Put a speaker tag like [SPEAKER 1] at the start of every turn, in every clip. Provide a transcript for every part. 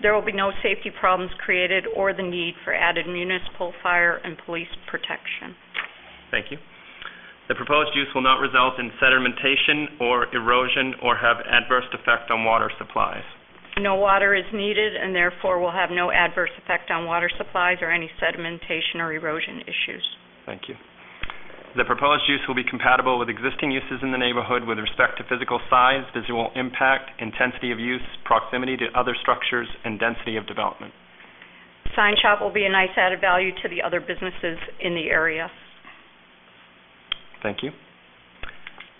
[SPEAKER 1] There will be no safety problems created or the need for added municipal fire and police protection.
[SPEAKER 2] Thank you. The proposed use will not result in sedimentation or erosion or have adverse effect on water supplies.
[SPEAKER 1] No water is needed and therefore will have no adverse effect on water supplies or any sedimentation or erosion issues.
[SPEAKER 2] Thank you. The proposed use will be compatible with existing uses in the neighborhood with respect to physical size, visual impact, intensity of use, proximity to other structures, and density of development.
[SPEAKER 1] Sign shop will be a nice added value to the other businesses in the area.
[SPEAKER 2] Thank you.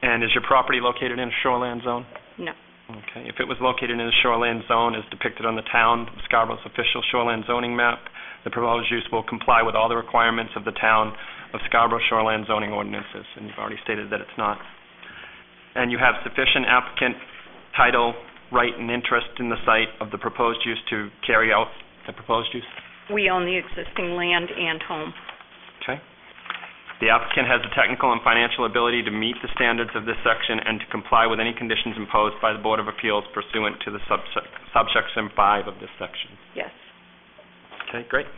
[SPEAKER 2] And is your property located in a shoreland zone?
[SPEAKER 1] No.
[SPEAKER 2] Okay, if it was located in a shoreland zone as depicted on the town of Scarborough's official shoreland zoning map, the proposed use will comply with all the requirements of the town of Scarborough shoreland zoning ordinances, and you've already stated that it's not. And you have sufficient applicant title, right, and interest in the site of the proposed use to carry out the proposed use?
[SPEAKER 1] We own the existing land and home.
[SPEAKER 2] Okay. The applicant has the technical and financial ability to meet the standards of this section and to comply with any conditions imposed by the Board of Appeals pursuant to the subsec- subsection 5 of this section.
[SPEAKER 1] Yes.
[SPEAKER 2] Okay, great.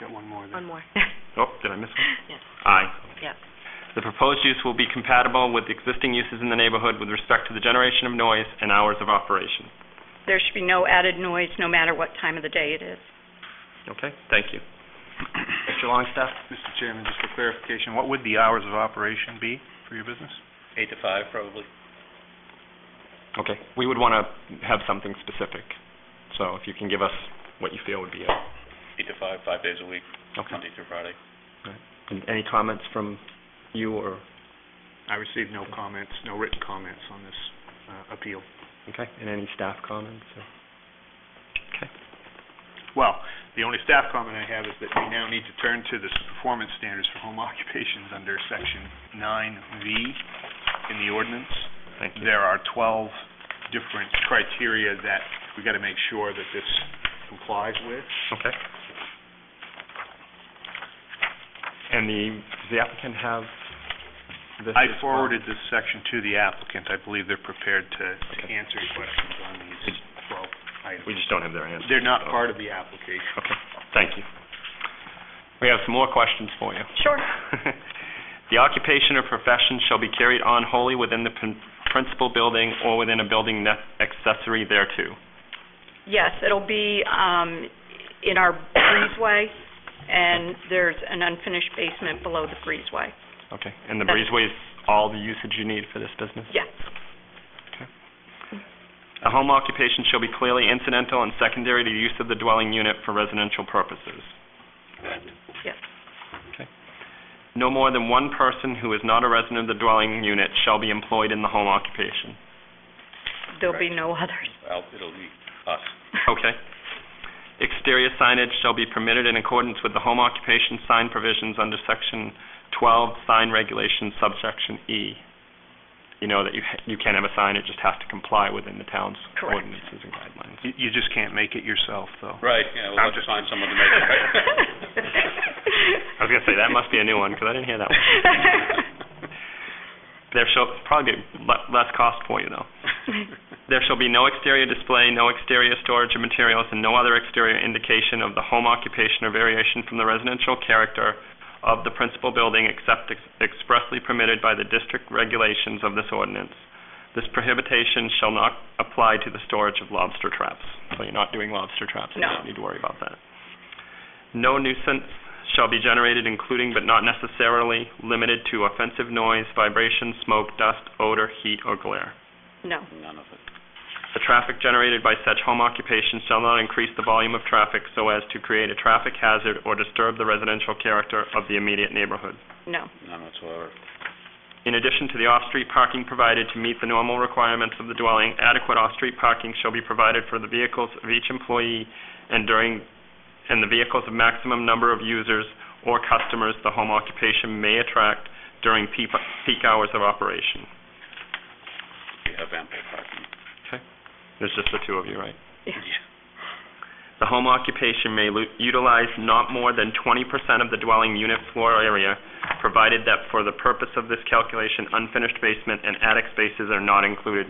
[SPEAKER 3] Got one more there.
[SPEAKER 4] One more.
[SPEAKER 2] Oh, did I miss one?
[SPEAKER 4] Yes.
[SPEAKER 2] Aye.
[SPEAKER 4] Yes.
[SPEAKER 2] The proposed use will be compatible with existing uses in the neighborhood with respect to the generation of noise and hours of operation.
[SPEAKER 1] There should be no added noise, no matter what time of the day it is.
[SPEAKER 2] Okay, thank you. Mr. Longstaff?
[SPEAKER 3] Mr. Chairman, just for clarification, what would the hours of operation be for your business?
[SPEAKER 5] Eight to five, probably.
[SPEAKER 2] Okay, we would want to have something specific, so if you can give us what you feel would be a...
[SPEAKER 5] Eight to five, five days a week,
[SPEAKER 2] Okay.
[SPEAKER 5] Monday through Friday.
[SPEAKER 2] And Any comments from you or,
[SPEAKER 3] I received no comments, no written comments on this uh, appeal.
[SPEAKER 2] okay, and any staff comments? or- Okay,
[SPEAKER 3] Well, the only staff comment I have is that we now need to turn to the performance standards for home occupations under Section 9V in the ordinance.
[SPEAKER 2] thank you.
[SPEAKER 3] There are 12 different criteria that we've got to make sure that this complies with.
[SPEAKER 2] Okay. And the, does the applicant have this?
[SPEAKER 3] I
[SPEAKER 2] as well?
[SPEAKER 3] forwarded this section to the applicant. I believe they're prepared to to
[SPEAKER 2] Okay.
[SPEAKER 3] answer questions on these 12 items.
[SPEAKER 2] We just don't have their answer.
[SPEAKER 3] They're not part of the application.
[SPEAKER 2] Okay, thank you. We have some more questions for you.
[SPEAKER 1] Sure.
[SPEAKER 2] The occupation or profession shall be carried on wholly within the prin- principal building or within a building ne- accessory thereto.
[SPEAKER 1] Yes, it'll be um, in our breezeway, and there's an unfinished basement below the breezeway.
[SPEAKER 2] Okay, and the
[SPEAKER 1] That's-
[SPEAKER 2] breezeway is all the usage you need for this business?
[SPEAKER 1] Yes.
[SPEAKER 2] A home occupation shall be clearly incidental and secondary to the use of the dwelling unit for residential purposes.
[SPEAKER 1] Yes.
[SPEAKER 2] Okay. No more than one person who is not a resident of the dwelling unit shall be employed in the home occupation.
[SPEAKER 1] There'll be no others.
[SPEAKER 5] Well, it'll be us.
[SPEAKER 2] Okay. Exterior signage shall be permitted in accordance with the home occupation sign provisions under Section 12 Sign Regulations, subsection E. You know that you ha- you can't have a sign, it just has to comply within the town's
[SPEAKER 1] Correct.
[SPEAKER 2] ordinances and guidelines.
[SPEAKER 3] You- You just can't make it yourself, though.
[SPEAKER 5] Right,
[SPEAKER 3] I'm
[SPEAKER 5] yeah, we'll have to
[SPEAKER 3] just-
[SPEAKER 5] find someone to make it, right?
[SPEAKER 2] I was going to say, that must be a new one, because I didn't hear that one. There shall probably be le- less cost for you, though. There shall be no exterior display, no exterior storage of materials, and no other exterior indication of the home occupation or variation from the residential character of the principal building except ex- expressly permitted by the district regulations of this ordinance. This prohibition shall not apply to the storage of lobster traps. So you're not doing lobster traps, you
[SPEAKER 1] No.
[SPEAKER 2] don't need to worry about that. No nuisance shall be generated including but not necessarily limited to offensive noise, vibration, smoke, dust, odor, heat, or glare.
[SPEAKER 1] No.
[SPEAKER 5] None of it.
[SPEAKER 2] The traffic generated by such home occupation shall not increase the volume of traffic so as to create a traffic hazard or disturb the residential character of the immediate neighborhood.
[SPEAKER 1] No.
[SPEAKER 5] None whatsoever.
[SPEAKER 2] In addition to the off-street parking provided to meet the normal requirements of the dwelling, adequate off-street parking shall be provided for the vehicles of each employee and during, and the vehicles of maximum number of users or customers the home occupation may attract during peak peak hours of operation.
[SPEAKER 5] We have ample parking.
[SPEAKER 2] There's just the two of you, right?
[SPEAKER 5] Yeah.
[SPEAKER 2] The home occupation may lu- utilize not more than 20% of the dwelling unit floor area, provided that for the purpose of this calculation, unfinished basement and attic spaces are not included,